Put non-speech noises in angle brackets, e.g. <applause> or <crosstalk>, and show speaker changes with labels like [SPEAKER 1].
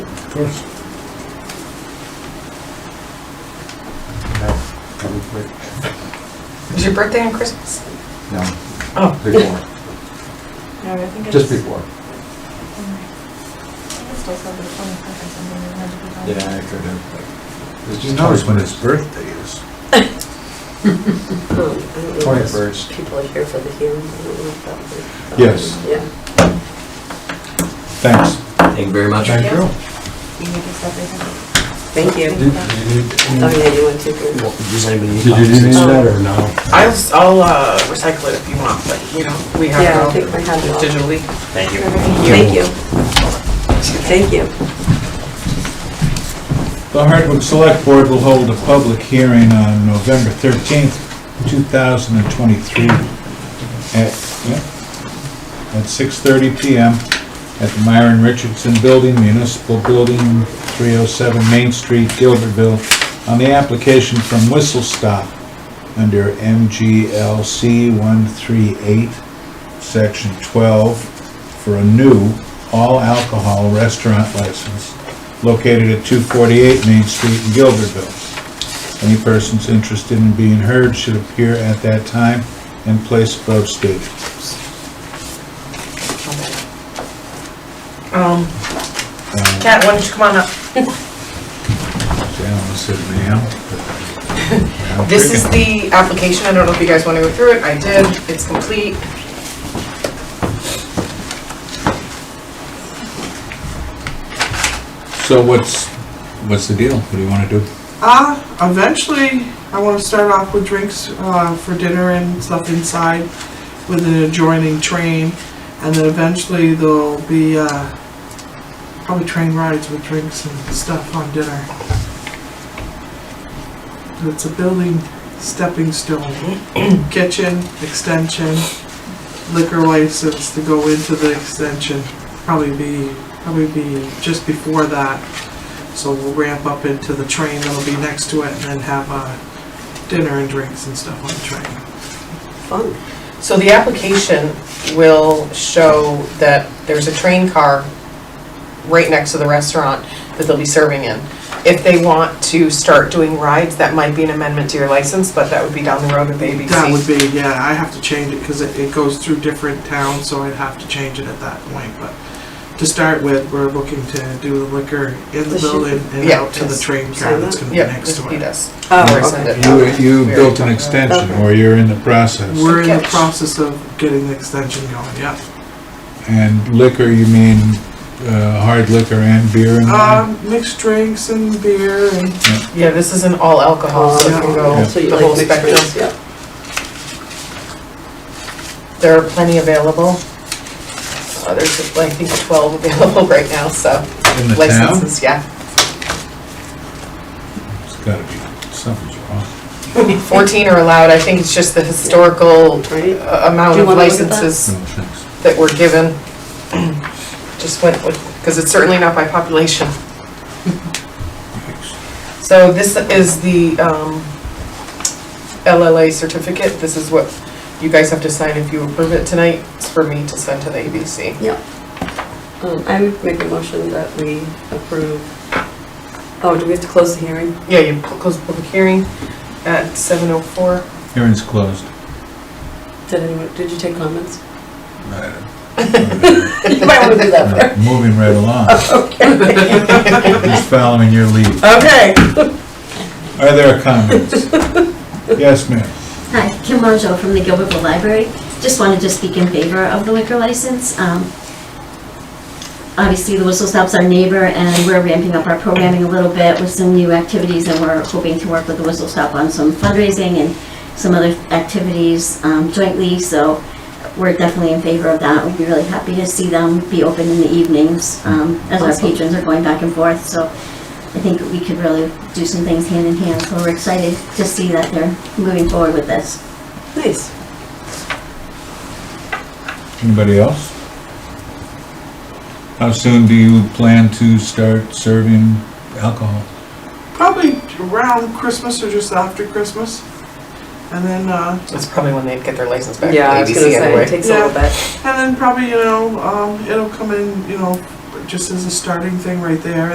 [SPEAKER 1] course.
[SPEAKER 2] That'll be quick.
[SPEAKER 3] Was your birthday on Christmas?
[SPEAKER 2] No,
[SPEAKER 4] <laughs>
[SPEAKER 3] Oh.
[SPEAKER 2] before,
[SPEAKER 3] No, I think
[SPEAKER 2] just before. Yeah, I could have. but It's
[SPEAKER 1] Who
[SPEAKER 2] just
[SPEAKER 1] knows when his
[SPEAKER 2] it's
[SPEAKER 1] birthday is?
[SPEAKER 4] Oh,
[SPEAKER 2] Twenty-first.
[SPEAKER 4] People are here for the hearing. I don't know if that would-
[SPEAKER 2] Yes.
[SPEAKER 4] Yeah.
[SPEAKER 2] Thanks.
[SPEAKER 5] Thank you very much.
[SPEAKER 2] Thank you.
[SPEAKER 4] Thank you.
[SPEAKER 2] Did you need
[SPEAKER 4] Oh,
[SPEAKER 2] any-
[SPEAKER 4] yeah, you went to. good.
[SPEAKER 5] Does anybody need
[SPEAKER 2] Did you need any of
[SPEAKER 5] copies?
[SPEAKER 2] that or no?
[SPEAKER 3] I'll, I'll uh, recycle it if you want, but you know, we have
[SPEAKER 4] Yeah,
[SPEAKER 3] it
[SPEAKER 4] I think
[SPEAKER 3] all
[SPEAKER 4] I have it all.
[SPEAKER 3] digitally.
[SPEAKER 5] Thank you.
[SPEAKER 4] Thank you. Thank you.
[SPEAKER 1] The Hardwick Select Board will hold a public hearing on November 13th, 2023 at, yeah, at 6:30 PM at the Myron Richardson Building, Municipal Building, 307 Main Street, Gilbertville, on the application from Whistle Stop under MGLC 138, Section 12, for a new all-alcohol restaurant license located at 248 Main Street in Gilderville. Any persons interested in being heard should appear at that time and place above stated.
[SPEAKER 3] Um,
[SPEAKER 1] Uh,
[SPEAKER 3] Kat, why don't you come on up?
[SPEAKER 1] Alan said now.
[SPEAKER 3] <laughs> This is the application, I don't know if you guys want to go through it, I did, it's complete.
[SPEAKER 1] So what's, what's the deal? What do you want to do?
[SPEAKER 6] Uh, eventually, I want to start off with drinks uh, for dinner and stuff inside with an adjoining train. And then eventually, there'll be uh, probably train rides with drinks and stuff on dinner. It's a building stepping stone. Kitchen, extension, liquor license to go into the extension. Probably be, probably be just before that. So we'll ramp up into the train that'll be next to it and then have uh, dinner and drinks and stuff on the train.
[SPEAKER 4] Fun.
[SPEAKER 3] So the application will show that there's a train car right next to the restaurant that they'll be serving in. If they want to start doing rides, that might be an amendment to your license, but that would be down the road with ABC.
[SPEAKER 6] That would be, yeah, I have to change it because it, it goes through different towns, so I'd have to change it at that point. But to start with, we're looking to do the liquor in the
[SPEAKER 4] The shoot-
[SPEAKER 6] building and
[SPEAKER 3] Yeah.
[SPEAKER 6] out to the train
[SPEAKER 4] Sign
[SPEAKER 6] car that's
[SPEAKER 4] that?
[SPEAKER 6] gonna be
[SPEAKER 3] Yep,
[SPEAKER 6] next
[SPEAKER 3] just
[SPEAKER 6] to
[SPEAKER 3] be
[SPEAKER 6] it.
[SPEAKER 3] this.
[SPEAKER 4] Oh,
[SPEAKER 3] Rescind
[SPEAKER 4] okay.
[SPEAKER 3] it.
[SPEAKER 1] You, you
[SPEAKER 3] We already
[SPEAKER 1] built an
[SPEAKER 3] talked about that.
[SPEAKER 1] extension,
[SPEAKER 4] Okay.
[SPEAKER 1] or you're in the process.
[SPEAKER 6] We're in the
[SPEAKER 3] Catch.
[SPEAKER 6] process of getting the extension going, yeah.
[SPEAKER 1] And liquor, you mean uh, hard liquor and beer and wine?
[SPEAKER 6] Um, mixed drinks and beer and
[SPEAKER 3] Yeah, this is an all alcohol, so it can
[SPEAKER 4] Oh,
[SPEAKER 3] go
[SPEAKER 4] So you
[SPEAKER 3] the whole
[SPEAKER 4] like mixed drinks,
[SPEAKER 3] spectrum.
[SPEAKER 4] yeah.
[SPEAKER 3] There are plenty available. Uh, There's, I think, 12 available <laughs> right now, so
[SPEAKER 1] In the town?
[SPEAKER 3] licenses, yeah.
[SPEAKER 1] It's gotta be, something's wrong.
[SPEAKER 3] 14 are allowed, I think it's just the historical
[SPEAKER 4] Right?
[SPEAKER 3] uh, amount
[SPEAKER 4] Do
[SPEAKER 3] of
[SPEAKER 4] you wanna look at that?
[SPEAKER 3] licenses
[SPEAKER 1] No, thanks.
[SPEAKER 3] that were given. Just went with, because it's certainly not by population.
[SPEAKER 1] Thanks.
[SPEAKER 3] So this is the um, LLA certificate, this is what you guys have to sign if you approve it tonight. It's for me to send to the ABC.
[SPEAKER 4] Um, I would make a motion that we approve. Oh, do we have to close the hearing?
[SPEAKER 3] Yeah, you pu- close the public hearing at 7:04.
[SPEAKER 1] Hearing's closed.
[SPEAKER 4] Did anyone, did you take comments?
[SPEAKER 1] Right.
[SPEAKER 4] <laughs> You might want to do
[SPEAKER 1] We're Moving right along, just following your lead.
[SPEAKER 4] Okay.
[SPEAKER 1] Are there comments? Yes, ma'am.
[SPEAKER 7] Hi, Kim Monjo from the Gilbertville Library. Just wanted to speak in favor of the liquor license. Um, Obviously, the Whistle Stop's our neighbor, and we're ramping up our programming a little bit with some new activities, and we're hoping to work with the Whistle Stop on some fundraising and some other activities um, jointly, so we're definitely in favor of that. We'd be really happy to see them be open in the evenings, um, as our
[SPEAKER 4] Awesome.
[SPEAKER 7] patrons are going back and forth, so I think we could really do some things hand in hand, so we're excited to see that they're moving forward with this.
[SPEAKER 4] Nice.
[SPEAKER 1] Anybody else? How soon do you plan to start serving alcohol?
[SPEAKER 6] probably around Christmas or just after Christmas. And then, uh,
[SPEAKER 3] That's probably when they'd get their license back from
[SPEAKER 4] Yeah, I was gonna
[SPEAKER 3] ABC
[SPEAKER 4] say, it
[SPEAKER 3] anyway.
[SPEAKER 4] takes a little bit.
[SPEAKER 6] And then probably, you know, um, it'll come in, you know, just as a starting thing right there.